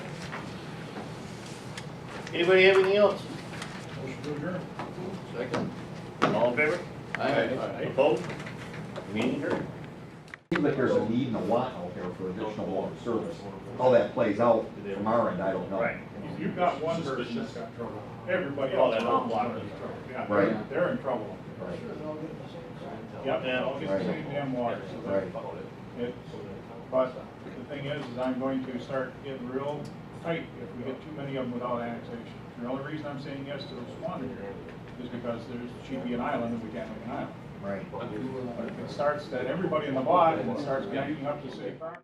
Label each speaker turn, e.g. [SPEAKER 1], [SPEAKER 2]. [SPEAKER 1] Anybody have anything else?
[SPEAKER 2] Motion to adjourn.
[SPEAKER 3] Second.
[SPEAKER 1] All in favor? Opposed? Meeting adjourned.
[SPEAKER 4] Seems like there's a need and a want out there for additional water service. How that plays out from our end, I don't know.
[SPEAKER 1] Right.
[SPEAKER 2] You've got one person that's got trouble. Everybody
[SPEAKER 1] All
[SPEAKER 2] else
[SPEAKER 1] Oh, that
[SPEAKER 2] around
[SPEAKER 1] hot
[SPEAKER 2] is in
[SPEAKER 1] water.
[SPEAKER 2] trouble. Yeah,
[SPEAKER 4] Right.
[SPEAKER 2] they're, they're in trouble.
[SPEAKER 4] Right.
[SPEAKER 2] Yep, they all get the
[SPEAKER 4] Right.
[SPEAKER 2] same damn water. so that-
[SPEAKER 4] Right.
[SPEAKER 2] it's- But the thing is, is I'm going to start getting real tight if we get too many of them without annexation. The only reason I'm saying yes to this one is because there's, should be an island and we can't make an island.
[SPEAKER 4] Right.
[SPEAKER 2] But if it starts that everybody in the bottom, it starts backing up to city property.